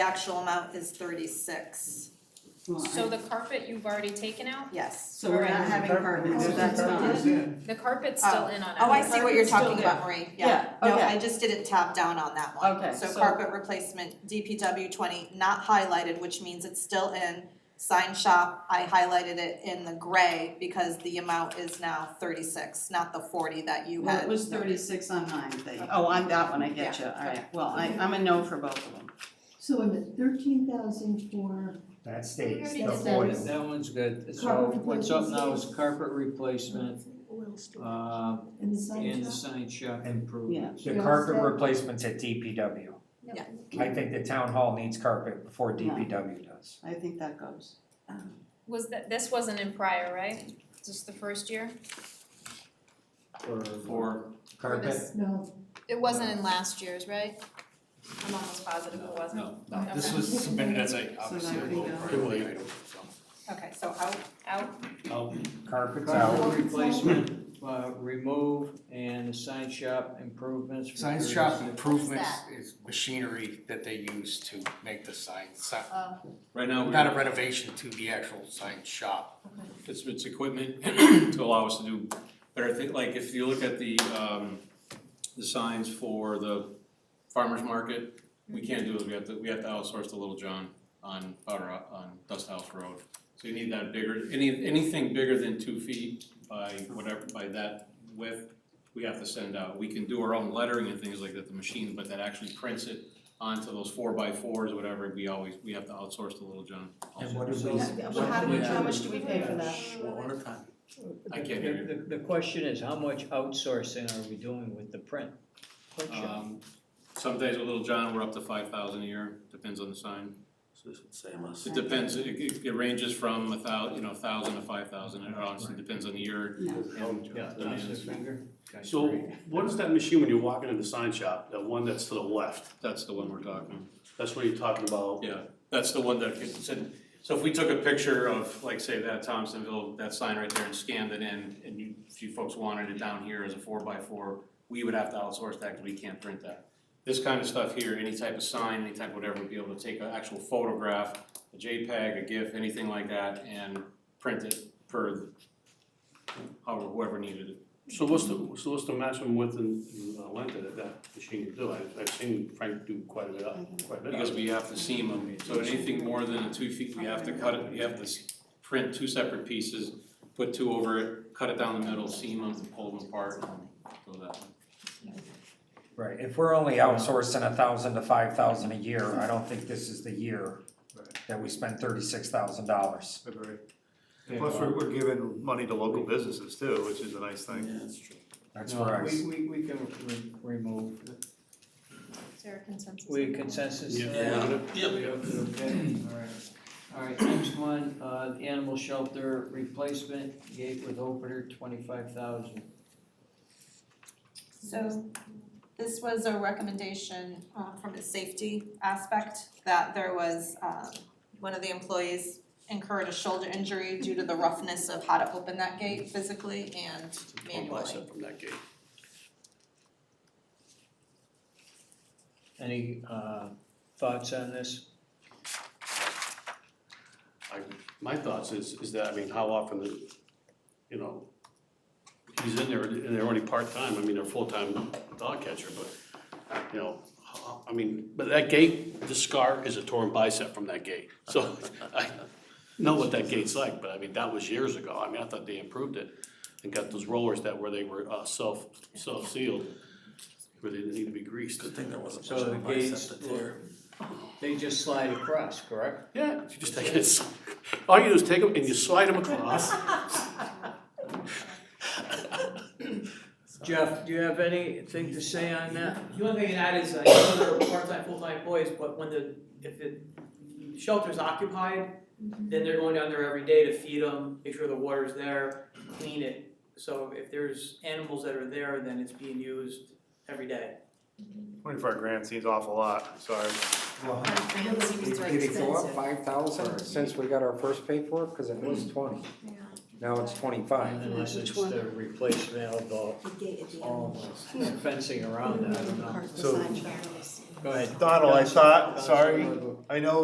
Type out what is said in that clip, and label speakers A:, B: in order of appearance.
A: The actual amount is thirty-six,
B: Well,
C: So
B: I-
C: the carpet you've already taken out?
A: yes.
B: So we're not having
A: carpet, so that's
B: not-
C: The carpet's still
A: Oh.
C: in on it.
A: Oh, I see what you're
B: Carpet's still
A: talking about, Marie, yeah.
B: Yeah,
A: No,
B: okay.
A: I just didn't tap down on that one.
B: Okay,
A: So
B: so-
A: carpet replacement, DPW twenty, not highlighted, which means it's still in. Sign shop, I highlighted it in the gray because the amount is now thirty-six, not the forty that you
B: Well,
A: had.
B: it was thirty-six on mine, thing. oh, on that one, I get you, alright, well, I, I'm a no for both of them.
D: So wait a minute, thirteen thousand for,
E: That stays,
C: We
E: the
C: already did that.
E: forty.
F: Oh, That one's good, so
D: Carpet
F: what's up now
D: replacement.
F: is carpet replacement,
D: oil storage
F: uh,
D: and the sign
F: and the
D: shop?
F: sign shop improvement.
E: The carpet replacements at DPW.
A: Yeah.
E: I think the town hall needs carpet before DPW does.
B: I think that goes.
C: Was that, this wasn't in prior, right? Just the first year?
F: For.
E: Carpet,
C: this-
D: No,
C: It wasn't in last year's, right? I'm almost positive it wasn't.
G: No, no, this
C: Okay.
G: was submitted as a,
B: So
G: obviously,
B: that
G: a
B: we
G: low
B: know.
G: priority item,
A: Okay, so out,
C: Out,
G: so. Oh,
E: carpet's out,
F: Carpet replacement, uh, remove, and the sign shop improvements. for
G: Sign shop
F: 36.
G: improvements is machinery that they use to make the sign, si-
C: uh,
H: Right now,
G: not a
H: we're-
G: renovation to the actual sign shop.
H: it's, it's equipment to allow us to do better things, like if you look at the, um, the signs for the farmer's market, we can't do it, we have to, we have to outsource to Little John on Powder, Ho- on Dust House Road. So you need that bigger, any, anything bigger than two feet by whatever, by that width, we have to send out. We can do our own lettering and things like that, the machine, but that actually prints it onto those four by fours, whatever, we always, we have to outsource to Little John.
E: and
H: also.
E: what do we,
B: Well, how
E: what
B: much, how much do we pay for that?
H: I can't hear you.
F: The, the- the question is, how much outsourcing are we doing with the print? Print shop.
H: Um, some days with Little John, we're up to five thousand a year, depends on the sign. It depends, it, it- it ranges from a thou, you know, thousand to five thousand, it honestly depends on the year.
B: No.
H: and
I: Yeah,
H: the
I: that's
H: man.
I: it. So what is that machine when you walk into the sign shop, that one that's to the left?
H: That's the one we're talking,
I: That's what you're talking about?
H: yeah, that's the one that gets in. So if we took a picture of, like, say, that Thompsonville, that sign right there and scanned it in, and you, if you folks wanted it down here as a four by four, we would have to outsource that, cause we can't print that. This kind of stuff here, any type of sign, any type of whatever, would be able to take an actual photograph, a JPEG, a GIF, anything like that, and print it per however, whoever needed it.
I: So what's the, so what's the maximum width and uh, length that that machine can do? I've, I've seen Frank do quite a bit up,
B: Mm-hmm.
I: quite a bit
H: Because
I: up.
H: we have to seam them, so anything more than a two feet, we have to cut it, we have to s- print two separate pieces, put two over it, cut it down the middle, seam them, pull them apart, so that.
E: right, if we're only outsourcing a thousand to five thousand a year, I don't think this is the year that we spend thirty-six thousand dollars.
J: Agree. Plus, we're, we're giving money to local businesses too, which is a nice thing.
F: that's true.
E: That's
F: No,
E: where I,
F: we,
E: s-
F: we, we can re- remove,
C: is there a consensus?
F: we consensus?
I: Yeah.
F: Okay, alright. Alright, next one, uh, the animal shelter replacement, gate with opener, twenty-five thousand.
A: So this was a recommendation uh, from a safety aspect that there was um, one of the employees incurred a shoulder injury due to the roughness of how to open that gate physically and manually.
I: Concept from that gate.
F: Any, uh, thoughts on this?
I: My thoughts is, is that, I mean, how often, the- you know, he's in there, and they're only part-time, I mean, they're full-time dog catcher, but, you know, how- I mean, but that gate, the scar is a torn bicep from that gate, so I know what that gate's like, but I mean, that was years ago, I mean, I thought they improved it and got those rollers that where they were uh, self, self-sealed, where they didn't need to be greased. Good thing there wasn't.
F: So the gates were, they just slide across, correct?
I: Yeah, you just take it, all you do is take them and you slide them across.
F: Jeff, do you have anything to say on that?
K: The only thing to add is, I know there are part-time, full-time employees, but when the, if the shelter's occupied,
D: Mm-hmm.
K: then they're going down there every day to feed them, make sure the water's there, clean it. So if there's animals that are there, then it's being used every day.
J: Twenty-four grand seems awful lot, sorry.
E: well,
C: Grand seems too
E: did it go up
C: expensive.
E: five thousand since we got our first paperwork, cause it was twenty,
C: Yeah.
E: now it's twenty-five.
F: Unless it's
D: Which one?
F: the replacement of the
D: The gate at the end.
F: all fencing around that, Oh, I don't know.
D: Part of the
J: So-
D: sign shop.
L: Go ahead.
F: Donald, I thought, sorry, I know